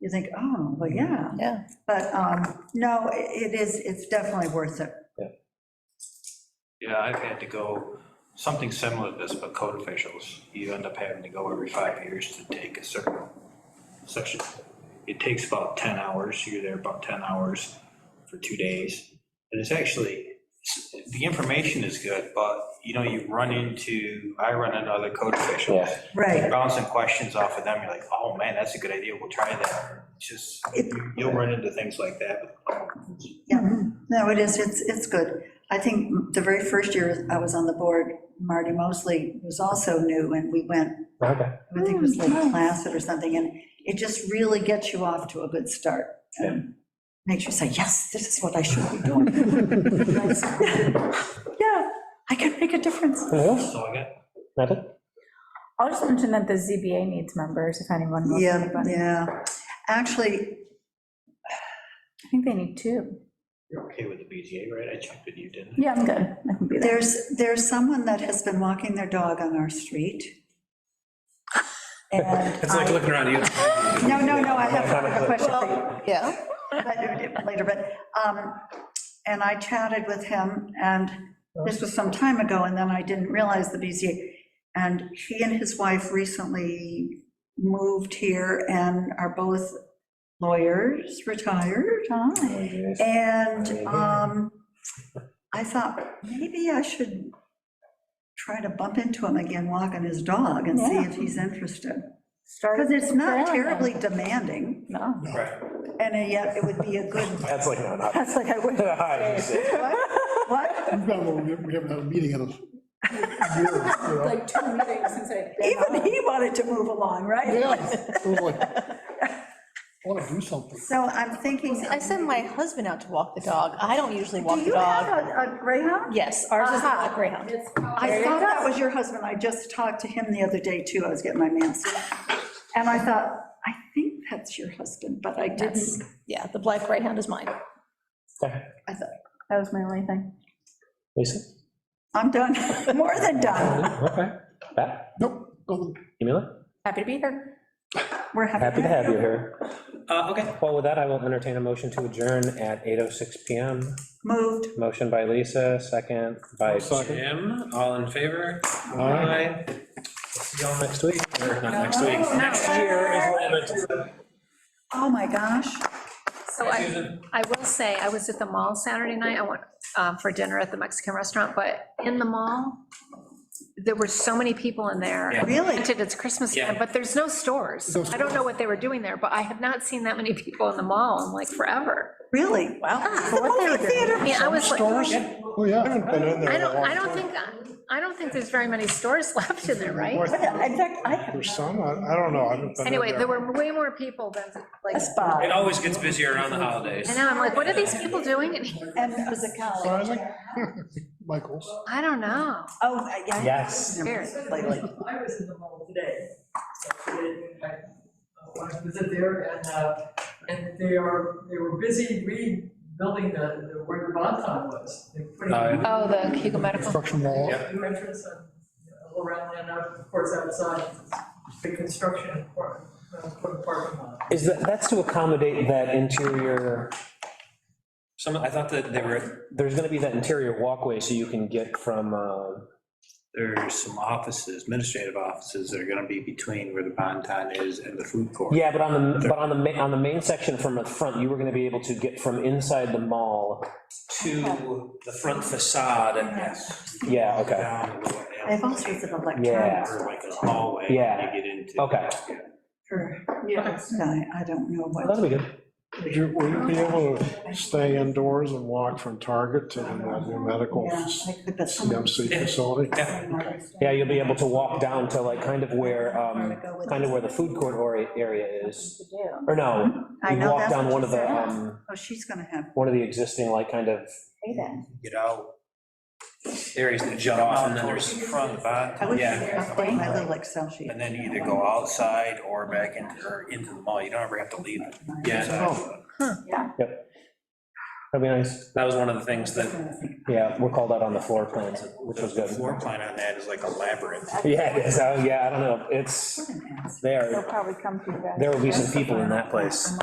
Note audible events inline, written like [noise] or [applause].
you think, oh, well, yeah. Yeah. But, um, no, i- it is, it's definitely worth it. Yeah, I've had to go, something similar to this, but code officials, you end up having to go every five years to take a certain section. It takes about 10 hours, you're there about 10 hours for two days. And it's actually, the information is good, but you know, you run into, I run into other code officials. Yeah. Right. Bouncing questions off of them, you're like, oh man, that's a good idea, we'll try that. It's Just, It- you'll run into things like that. um, Yeah, no, it is, it's, it's good. I think the very first year I was on the board, Marty Mosley was also new, and we went, Okay. I think it was Lake Placid or something, and it just really gets you off to a good start. and Makes you say, yes, this is what I should be doing. Yeah, I can make a difference. Yeah, So I got that it? I'll just mention that the ZBA needs members, if anyone wants Yeah, anybody. yeah. Actually, I think they need two. You're okay with the BZA, right? I checked with you, didn't I? Yeah, I'm good. I can be there. There's, there's someone that has been walking their dog on our street. [laughs] It's like looking around you. No, no, no, I have a question for Yeah, you but- later, but, um, and I chatted with him, and this was some time ago, and then I didn't realize the BZA. And he and his wife recently moved here and are both lawyers, retired. Hi. And Maybe. um, I thought, maybe I should try to bump into him again, walk on his dog, and see Yeah. if he's interested. Start Because it's there not then. terribly demanding, No, Right. and yet it would be a good, [laughs] That's like, no, not. that's like I would. [laughs] Hi, you say. what? We've got, a little- we haven't had a meeting in a year, you know? Like two meetings since I. [laughs] Even he wanted to move along, right? Yeah, it was like, I want to do something. So I'm thinking. I send my husband out to walk the dog. I don't usually Do walk the you have dog. a a greyhound? Yes, ours is Aha. not Greyhound. I thought that was your husband. I just talked to him the other day, too. I was getting my mask. And I thought, I think that's your husband, but I Yes. didn't. Yeah, the black Greyhound is mine. Okay. I thought, That was my only thing. Lisa? I'm done, [laughs] more than done. Okay. Pat? Nope, nothing. Camila? Happy to be here. We're happy. Happy to have you here. Uh, okay. Well, with that, I will entertain a motion to adjourn at 8:06 PM. Moved. Motion by Lisa, second by Jim. All in favor? Aye. See y'all next week, or not next week, next year. is what I meant to say. Oh, my gosh. So I, I will say, I was at the mall Saturday night, I went um, for dinner at the Mexican restaurant, but in the mall, there were so many people in there. Really? Granted, it's Christmas time, but there's no stores. No I don't know what they were doing there, but I have not seen that many people in the mall in like forever. Really? Wow. The movie I theater. mean, I was like, I Oh, yeah. I haven't been in don't, I don't think, I don't think there's very many stores [laughs] left in there, right? In fact, I have There's some, I I don't know, I haven't been in Anyway, there were way more people than, like, a spot, always gets busier around the holidays. and now I'm like, what are these people doing? in here? and it was a college. Surprising? Michael's. I don't know. Oh, yeah. Yes. Weird. Lately. I was in the mall today. so today, I I uh, was in there and, uh, and they are, they were busy rebuilding the, the- where the Bonton was. They put in Oh, yeah. Oh, the Hugo Medical. Construction wall. New entrance and you know, all around and out, of course, outside, the construction, part- uh, for the parking lot. Is that, that's to accommodate that interior, Some, I thought that there were, there's gonna be that interior walkway so you can get from, uh, there's some offices, administrative offices that are gonna be between where the Bonton is and the food court. Yeah, but on the, but on the, ma- on the main section from the front, you were gonna be able to get from inside the mall. To the front facade and yes. Yeah, okay, Down the way. I have all sorts of Yeah. electronics. Or like a hallway. when Yeah. You get into. Okay. Yeah. for- I I don't know that'll what. be good. Would you, will you be able to stay indoors and walk from Target to the new medical Yeah, I could, but some- CMC facility? Yeah, you'll be able to walk down to like kind of where, um, Go with kind of this. where the food court or- area is. Or no, Hmm? I you know, walk that's down what one she of the, said. um, Oh, she's gonna have, one of the existing like kind of, Get out. Areas that shut off and then there's. Front of the I wish she could Bonton, yeah. update my little Excel sheet. And then you either go outside or back Oh. into, or into the mall. You don't ever have to leave. Yeah. Oh. Yep. That'd be nice. That was one of the things that, Yeah, we're called out on the floor plans, which was the good. floor plan on that is like a labyrinth. Yeah, it is. Oh, yeah, I don't know. It's, What an ass. they They'll are, probably come to you guys. there will be some people in that place.